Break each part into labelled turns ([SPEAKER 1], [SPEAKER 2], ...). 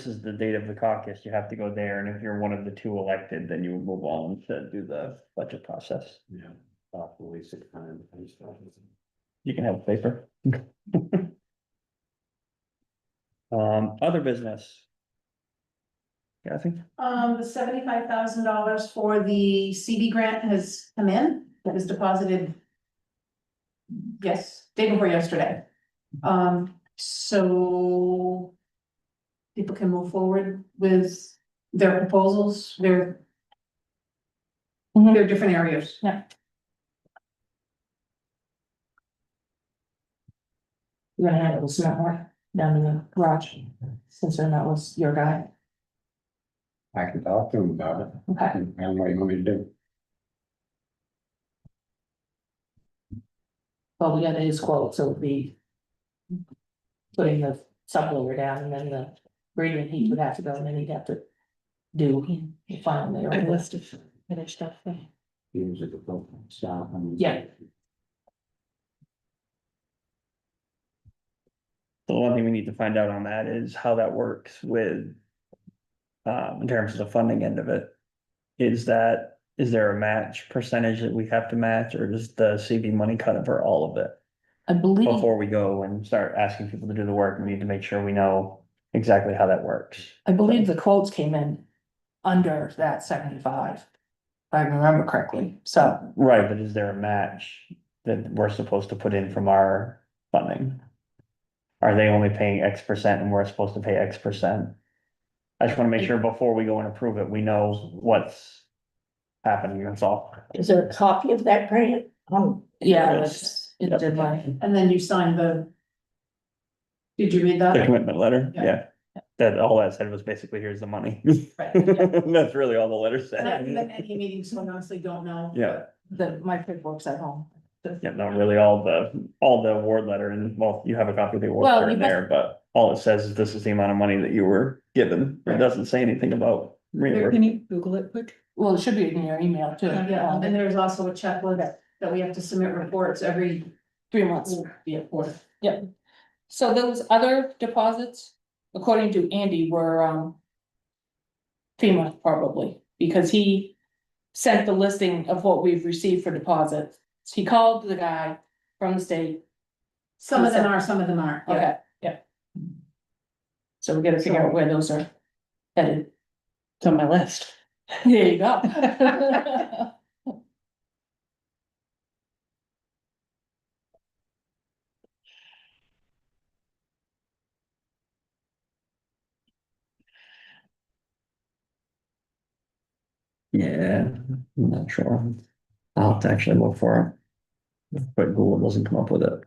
[SPEAKER 1] this is the date of the caucus, you have to go there, and if you're one of the two elected, then you move on to do the budget process.
[SPEAKER 2] Yeah.
[SPEAKER 1] You can have a paper. Um, other business. Yeah, I think
[SPEAKER 3] Um, the seventy-five thousand dollars for the CD grant has come in, It was deposited. Yes, day before yesterday. Um, so. People can move forward with their proposals, their.
[SPEAKER 4] Mhm.
[SPEAKER 3] Their different areas.
[SPEAKER 4] You're gonna have it with cement work down in the garage, since then that was your guy,
[SPEAKER 2] I can talk to him about it.
[SPEAKER 4] okay.
[SPEAKER 2] I don't know what you want me to do.
[SPEAKER 4] Well, we got his quote, so it'd be. Putting the subloader down and then the gradient heat would have to go and then he'd have to. Do the final layer. A list of finished stuff.
[SPEAKER 2] Use it to build stuff and-
[SPEAKER 4] Yeah.
[SPEAKER 1] the one thing we need to find out on that is how that works with. Uh, in terms of the funding end of it. Is that, is there a match percentage that we have to match, or does the CV money cover for all of it?
[SPEAKER 4] I
[SPEAKER 3] Mm-hmm.
[SPEAKER 4] believe,
[SPEAKER 1] Before we go and start asking people to do the work, we need to make sure we know exactly how that works.
[SPEAKER 4] I believe the quotes came in under that seventy-five. If I remember correctly, so.
[SPEAKER 1] Right, but is there a match that we're supposed to put in from our funding? Are they only paying X percent and we're supposed to pay X percent? I just wanna make sure before we go and approve it, we know what's happening, that's all.
[SPEAKER 5] Is there a copy of that grant? Oh,
[SPEAKER 4] Yeah,
[SPEAKER 1] Yes.
[SPEAKER 4] it's, it did like,
[SPEAKER 3] And then you sign the. Did you read
[SPEAKER 1] The
[SPEAKER 3] that?
[SPEAKER 1] commitment letter,
[SPEAKER 3] Yeah.
[SPEAKER 1] yeah. That, all that said was basically, here's the money.
[SPEAKER 3] Right.
[SPEAKER 1] That's really all the letter
[SPEAKER 3] And I've been
[SPEAKER 1] said.
[SPEAKER 3] at any meeting, so I honestly don't know.
[SPEAKER 1] Yeah,
[SPEAKER 4] the, my paperwork's at home.
[SPEAKER 1] yeah, not really all the, all the award letter and, well, you have a copy of the award
[SPEAKER 4] Well,
[SPEAKER 1] letter
[SPEAKER 4] you
[SPEAKER 1] in
[SPEAKER 4] must-
[SPEAKER 1] there, but all it says is this is the amount of money that you were given. It
[SPEAKER 3] Right.
[SPEAKER 1] doesn't say anything about reimbursement.
[SPEAKER 5] you Google it quick?
[SPEAKER 4] Well, it should be in your email too.
[SPEAKER 3] Yeah,
[SPEAKER 4] um,
[SPEAKER 3] and there's also a checklist that we have to submit reports every
[SPEAKER 4] Three months.
[SPEAKER 3] be a quarter.
[SPEAKER 4] So those other deposits, according to Andy, were um. FEMA probably, because he sent the listing of what we've received for deposits. So He called the guy from the state,
[SPEAKER 3] Some of them are, some of them aren't. yeah.
[SPEAKER 4] okay, yeah. So we gotta figure out where those are headed.
[SPEAKER 5] It's on my list.
[SPEAKER 4] There you go.
[SPEAKER 1] Yeah, I'm not sure. I'll have to actually look for it. But Google doesn't come up with it.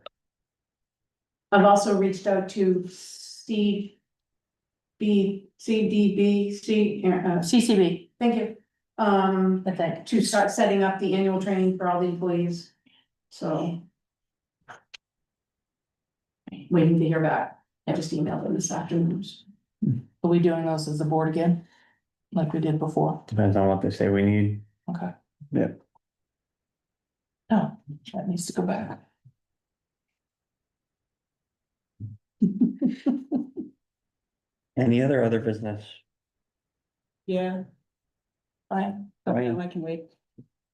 [SPEAKER 3] I've also reached out to C. B, C D B, C, uh,
[SPEAKER 4] CCB,
[SPEAKER 3] thank you. Um,
[SPEAKER 4] I think.
[SPEAKER 3] to start setting up the annual training for all the employees, so. Waiting to hear back. I just emailed them this afternoon.
[SPEAKER 4] Are we doing those as a board again? Like we did before?
[SPEAKER 1] Depends on what they say we need.
[SPEAKER 4] Okay.
[SPEAKER 1] Yeah.
[SPEAKER 4] Oh, that needs to go back.
[SPEAKER 1] Any other other business?
[SPEAKER 5] Yeah,
[SPEAKER 4] Fine.
[SPEAKER 1] Brian?
[SPEAKER 5] I can wait.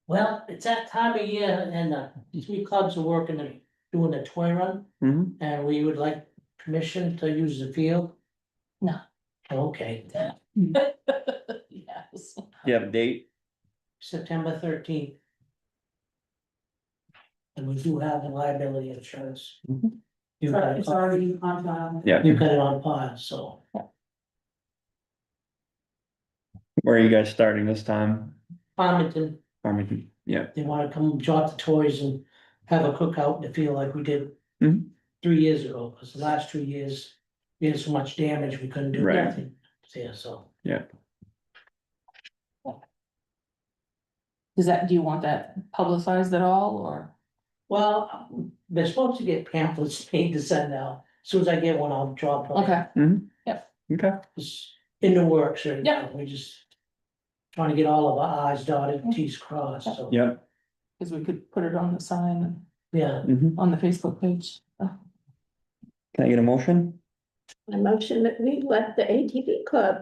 [SPEAKER 5] Well, it's that time of year and uh, these three clubs are working and doing a toy run
[SPEAKER 1] Mhm.
[SPEAKER 5] and we would like permission to use the field.
[SPEAKER 4] No.
[SPEAKER 5] Okay,
[SPEAKER 4] Yes.
[SPEAKER 1] Do you have a date?
[SPEAKER 5] September thirteenth. And we do have the liability insurance.
[SPEAKER 1] Mhm.
[SPEAKER 5] You've got
[SPEAKER 3] It's
[SPEAKER 5] it on-
[SPEAKER 3] already on file.
[SPEAKER 5] you've got it on pause, so
[SPEAKER 1] Where are you guys starting this time?
[SPEAKER 5] Farmington.
[SPEAKER 1] Farmington, yeah.
[SPEAKER 5] they wanna come drop the toys and have a cookout and feel like we did.
[SPEAKER 1] Mhm.
[SPEAKER 5] Three years ago, cause the last two years, we had so much damage, we couldn't do
[SPEAKER 1] Right.
[SPEAKER 5] anything, yeah, so.
[SPEAKER 4] Is that, do you want that publicized at all, or?
[SPEAKER 5] Well, they're supposed to get pamphlets made to send out, as soon as I get one, I'll drop one.
[SPEAKER 4] Okay,
[SPEAKER 1] Okay.
[SPEAKER 5] It's in the works, right
[SPEAKER 4] Yeah.
[SPEAKER 5] now, we just. Trying to get all of our i's dotted, and t's crossed, so.
[SPEAKER 1] Yeah.
[SPEAKER 4] because we could put it on the sign, and
[SPEAKER 5] Yeah,
[SPEAKER 1] Mhm.
[SPEAKER 4] on the Facebook page.
[SPEAKER 1] Can I get a motion?
[SPEAKER 6] I motion that we let the ATV club